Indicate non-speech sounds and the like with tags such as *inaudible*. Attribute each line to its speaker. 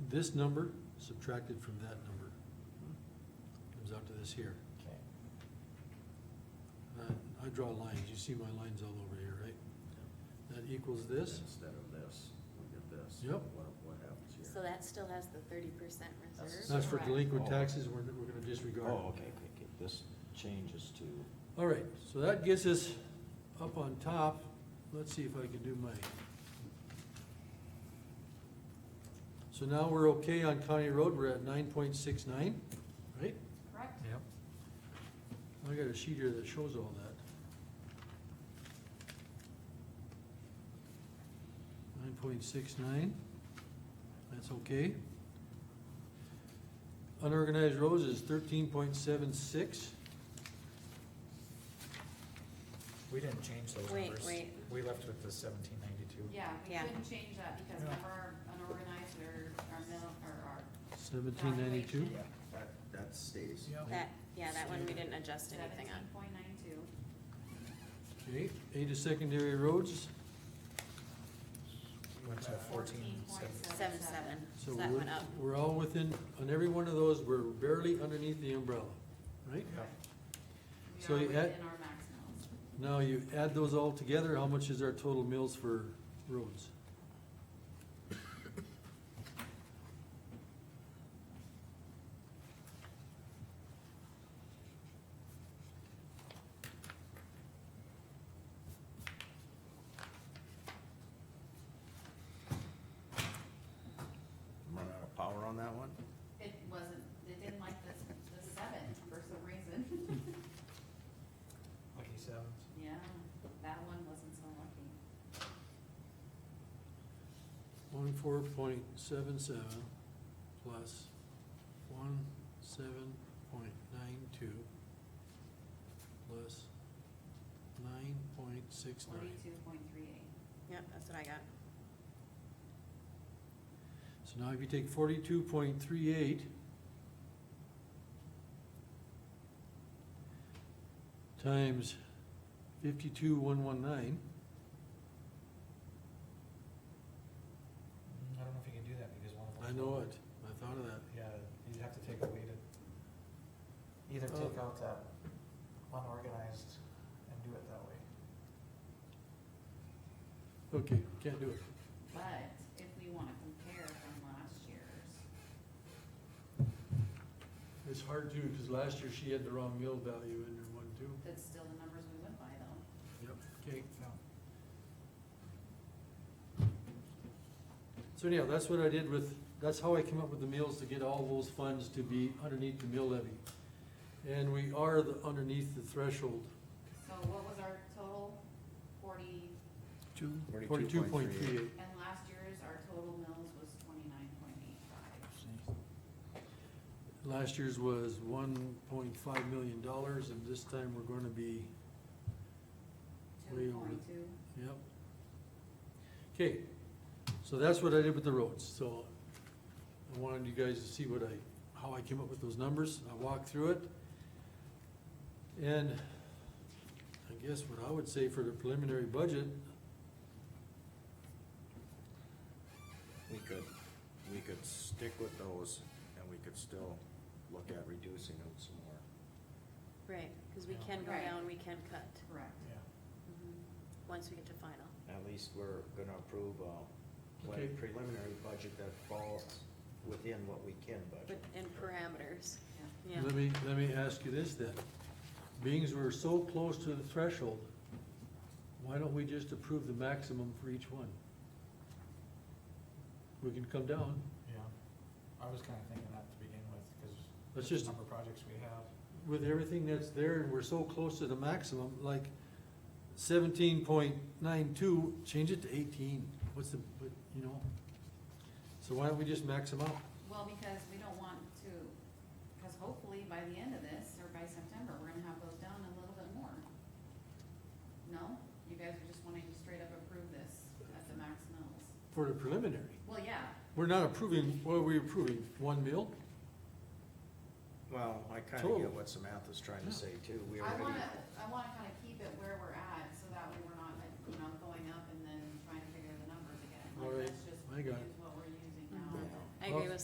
Speaker 1: this number subtracted from that number. Comes out to this here.
Speaker 2: Okay.
Speaker 1: Uh, I draw lines, you see my lines all over here, right? That equals this,
Speaker 3: Instead of this, look at this.
Speaker 1: Yep.
Speaker 3: What, what happens here?
Speaker 4: So that still has the thirty percent
Speaker 2: That's-
Speaker 4: reserve?
Speaker 1: that's for
Speaker 4: Correct.
Speaker 1: delinquent
Speaker 2: Oh.
Speaker 1: taxes, we're, we're gonna disregard.
Speaker 2: Oh, okay, okay, okay, this changes to,
Speaker 1: All right, so that gets us up on top, let's see if I can do my. So now we're okay on county road, we're at nine point six nine, right?
Speaker 4: Correct.
Speaker 5: Yep.
Speaker 1: I got a sheet here that shows all that. Nine point six nine, that's okay. Unorganized roads is thirteen point seven six,
Speaker 5: We didn't change those
Speaker 4: Wait,
Speaker 5: numbers.
Speaker 4: wait.
Speaker 5: We left with the seventeen ninety-two.
Speaker 6: Yeah, we
Speaker 4: Yeah.
Speaker 6: couldn't change that because
Speaker 5: Yeah.
Speaker 6: of our unorganized or our mill, or our,
Speaker 1: seventeen ninety-two.
Speaker 6: Valuation.
Speaker 3: That, that stays.
Speaker 4: That, yeah, that one we didn't adjust anything
Speaker 6: seventeen
Speaker 4: on.
Speaker 6: point nine two.
Speaker 1: Okay, A to secondary roads,
Speaker 5: Went to fourteen, seven.
Speaker 4: Seven, seven,
Speaker 1: so
Speaker 4: so that
Speaker 1: we're,
Speaker 4: went up.
Speaker 1: we're all within, on every one of those, we're barely underneath the umbrella, right? So
Speaker 6: We are
Speaker 1: you add-
Speaker 6: within our max mills.
Speaker 1: Now you add those all together, how much is our total mills for roads?
Speaker 3: Run out of power on that one?
Speaker 6: It wasn't, it didn't like the, the seven for some reason. *laughs*
Speaker 5: Lucky sevens.
Speaker 6: Yeah, that one wasn't so lucky.
Speaker 1: One four point seven seven plus one seven point nine two plus nine point six nine.
Speaker 6: Forty-two point three eight.
Speaker 4: Yep, that's what I got.
Speaker 1: So now if you take forty-two point three eight times fifty-two one one nine,
Speaker 5: Mm, I don't know if you can do that because one of them.
Speaker 1: I know it, I thought of that.
Speaker 5: Yeah, you'd have to take a weighted. Either
Speaker 1: Oh.
Speaker 5: take out that unorganized and do it that way.
Speaker 1: Okay, can't do it.
Speaker 6: But if we wanna compare from last year's,
Speaker 1: It's hard to, because last year she had the wrong mill value in her one too.
Speaker 6: that's still the numbers we went by though.
Speaker 1: Yep. Okay,
Speaker 5: No.
Speaker 1: so anyhow, that's what I did with, that's how I came up with the mills to get all those funds to be underneath the mill levy. And we are the, underneath the threshold.
Speaker 6: So what was our total? Forty,
Speaker 1: Two.
Speaker 3: 42.38.
Speaker 1: Forty-two point three eight.
Speaker 6: and last year's, our total mills was twenty-nine point eight five.
Speaker 1: Last year's was one point five million dollars, and this time we're gonna be, Way
Speaker 6: Two
Speaker 1: over.
Speaker 6: point two.
Speaker 1: yep. Okay, so that's what I did with the roads, so I wanted you guys to see what I, how I came up with those numbers, I walked through it. And I guess what I would say for the preliminary budget,
Speaker 3: We could, we could stick with those and we could still look at reducing them some more.
Speaker 4: Right, because we
Speaker 5: Yeah.
Speaker 4: can go
Speaker 6: Right.
Speaker 4: down, we can cut,
Speaker 6: Correct.
Speaker 5: Yeah.
Speaker 4: Mhm. once we get to final.
Speaker 3: At least we're gonna approve a
Speaker 1: Okay.
Speaker 3: what preliminary budget that falls within what we can
Speaker 4: But
Speaker 3: budget.
Speaker 4: in parameters,
Speaker 6: Yeah.
Speaker 4: yeah.
Speaker 1: let me, let me ask you this then. Beings were so close to the threshold, why don't we just approve the maximum for each one? We can come down,
Speaker 5: Yeah. I was kinda thinking that to begin with, cause.
Speaker 1: Let's
Speaker 5: the
Speaker 1: just-
Speaker 5: Number of projects we have.
Speaker 1: with everything that's there, and we're so close to the maximum, like seventeen point nine two, change it to eighteen, what's the, what, you know? So why don't we just max them out?
Speaker 6: Well, because we don't want to, because hopefully by the end of this, or by September, we're gonna have those down a little bit more. No? You guys are just wanting to straight up approve this at the max mills?
Speaker 1: For the preliminary,
Speaker 6: Well, yeah,
Speaker 1: we're not approving, what are we approving, one mil?
Speaker 3: Well, I kinda
Speaker 1: Totally.
Speaker 3: get what Samantha's trying
Speaker 1: Yeah.
Speaker 3: to say too. We
Speaker 6: I
Speaker 3: already.
Speaker 6: wanna, I wanna kinda keep it where we're at, so that way we're not, like, you know, going up and then trying to figure the numbers again.
Speaker 1: All right,
Speaker 6: Like, let's just
Speaker 1: I got it.
Speaker 6: use what we're using now.
Speaker 3: Yeah.
Speaker 4: I agree
Speaker 1: Well,
Speaker 4: with